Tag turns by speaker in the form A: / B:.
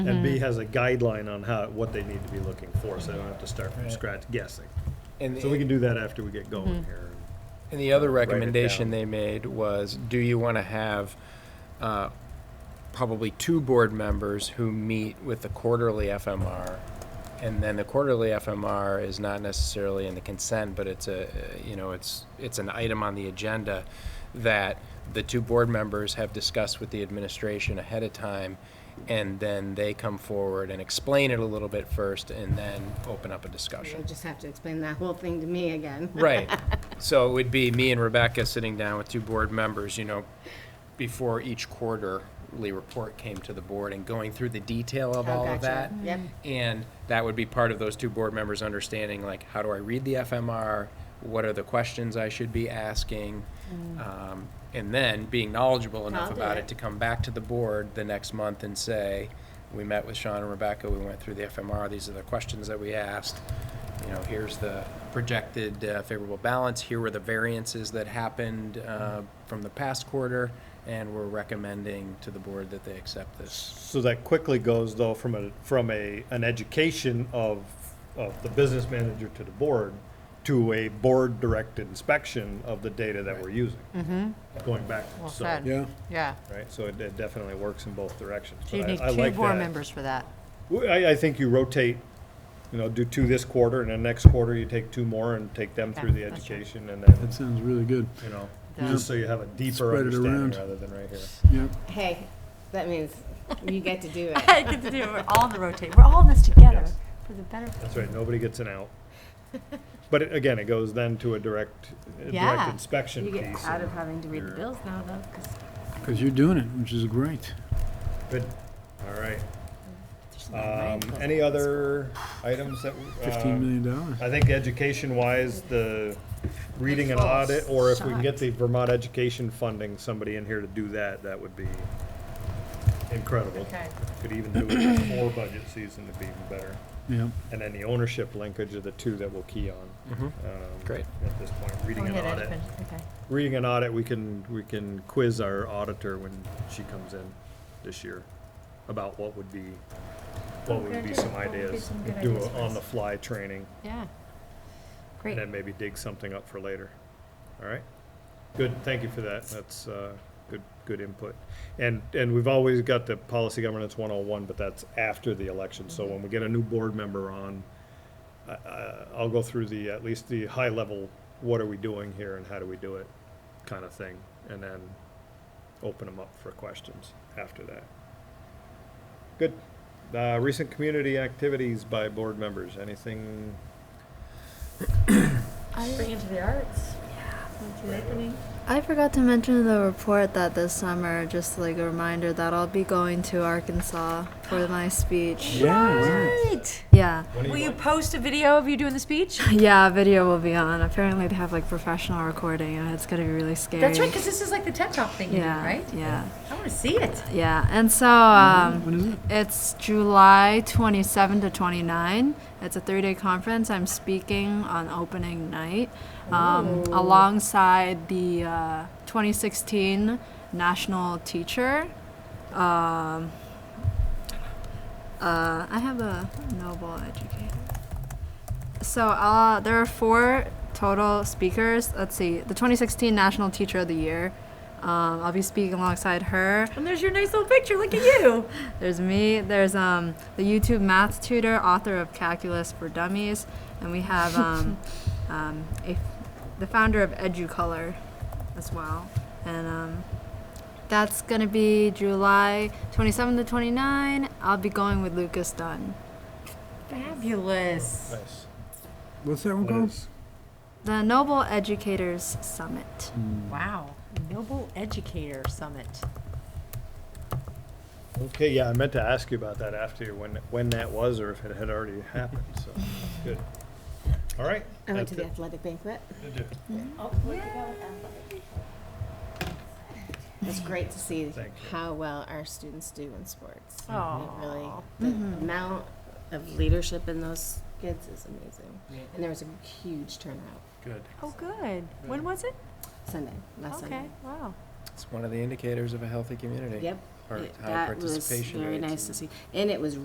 A: And
B: Mm-hmm.
A: B has a guideline on how, what they need to be looking for, so they don't have to start from
C: Right.
A: scratch guessing.
C: And
A: So we
C: the-
A: can do that after we get going
B: Mm-hmm.
A: here.
C: And the other
A: Write it down.
C: recommendation they made was, do you want to have uh, probably two board members who meet with the quarterly FMR? And then the quarterly FMR is not necessarily in the consent, but it's a, uh, you know, it's, it's an item on the agenda that the two board members have discussed with the administration ahead of time, and then they come forward and explain it a little bit first, and then open up a
D: You'll
C: discussion.
D: just have to explain that whole thing to me again.
C: Right. So it would be me and Rebecca sitting down with two board members, you know, before each quarterly report came to the board and going through the detail of
D: Oh,
C: all of that.
D: gotcha. Yep.
C: And that would be part of those two board members understanding, like, how do I read the FMR? What are the questions I should be asking? Um, And then being knowledgeable enough
D: I'll do
C: about
D: it.
C: it to come back to the board the next month and say, we met with Sean and Rebecca, we went through the FMR, these are the questions that we asked. You know, here's the projected uh, favorable balance, here were the variances that happened uh, from the past quarter, and we're recommending to the board that they accept this.
A: So that quickly goes though from a, from a, an education of, of the business manager to the board to a board-directed inspection of the data that we're using. Going
B: Mm-hmm. Well
A: backwards, so,
B: said.
A: right,
E: Yeah,
B: Yeah.
A: so it it definitely works in both directions.
B: So you
A: But I-
B: need
A: I
B: two
A: like
B: board
A: that.
B: members for that.
A: Well, I, I think you rotate, you know, do two this quarter, and then next quarter you take two more and take them through the
B: Yeah, that's right.
A: education, and then,
E: that sounds really good.
A: you know,
B: Yeah.
A: just so you have a deeper
E: Spread it
A: understanding
E: around.
A: rather than right here.
E: Yep.
D: Hey, that means you get to do it.
F: I get to do it. We're all in the rotate. We're all in this together
A: Yes.
F: for the better.
A: That's right, nobody gets an out. But it- again, it goes then to a direct, a direct
F: Yeah.
A: inspection
D: You
A: piece.
D: get out
A: and-
D: of having to read the bills now, though, 'cause
E: Because you're doing it, which is great.
A: Good, all right.
F: There's no
A: Um,
F: mind goes
A: any
F: on.
A: other items that,
E: Fifteen
A: um,
E: million dollars.
A: I think education-wise, the reading and
F: Full
A: audit, or if we can
F: shot.
A: get the Vermont education funding, somebody in here to do that, that would be incredible.
B: Okay.
A: Could even do it before budget season to be even better.
E: Yeah.
A: And then the ownership linkage are the two that we'll key on.
C: Mhm.
A: um,
C: Great.
A: At this point, reading
F: Go
A: an
F: ahead,
A: audit.
F: Ashwin. Okay.
A: Reading an audit, we can, we can quiz our auditor when she comes in this year about what would be, what would be some ideas. Do a on-the-fly training
F: Yeah. Great.
A: and then maybe dig something up for later. All right? Good, thank you for that. That's uh, good, good input. And, and we've always got the policy governance 101, but that's after the election. So when we get a new board member on, I- I- I'll go through the, at least the high level, what are we doing here and how do we do it kind of thing, and then open them up for questions after that. Good. Uh, Recent community activities by board members, anything
G: Spring into the arts. Winter Awakening.
H: I forgot to mention in the report that this summer, just like a reminder that I'll be going to Arkansas for my speech.
E: Yeah.
F: Great.
H: Yeah.
F: Will you post a video of you doing the speech?
H: Yeah, video will be on. Apparently, they have like professional recording, and it's gonna be really scary.
F: That's right, because this is like the TED Talk thing, you do,
H: yeah,
F: right?
H: yeah,
F: I want to see it.
H: yeah. And so um,
E: When is it?
H: it's July 27 to 29. It's a three-day conference. I'm speaking on opening night, um,
E: Oh.
H: alongside the uh, 2016 National Teacher. Um, uh, I have a noble educator. So uh, there are four total speakers. Let's see. The 2016 National Teacher of the Year. Um, I'll be speaking alongside her.
F: And there's your nice little picture. Look at you.
H: There's me. There's um, the YouTube math tutor, author of Calculus for Dummies, and we have um, um, a, the founder of EduColor as well. And um, that's gonna be July 27 to 29. I'll be going with Lucas Dunn.
F: Fabulous.
A: Nice.
E: What's that one
A: What
E: called?
A: is-
H: The Noble Educators Summit.
F: Wow. Noble Educator Summit.
A: Okay, yeah, I meant to ask you about that after, when, when that was, or if it had already happened, so, good. All right.
D: I went to the
A: that's
D: athletic banquet.
A: it. Did you?
D: It's great to see
A: Thank you.
D: how well our students do in sports.
F: Oh.
D: It Really, the amount of leadership in those kids is amazing. And there was a huge turnout
A: Good.
F: Oh, good. When was it?
D: Sunday, last
F: Okay.
D: Sunday.
F: Wow.
C: It's one of the indicators of a healthy community.
D: Yep,
C: or
D: It-
C: high
D: That was
C: participation
D: very
C: rates
D: nice
C: and-
D: to see. And it was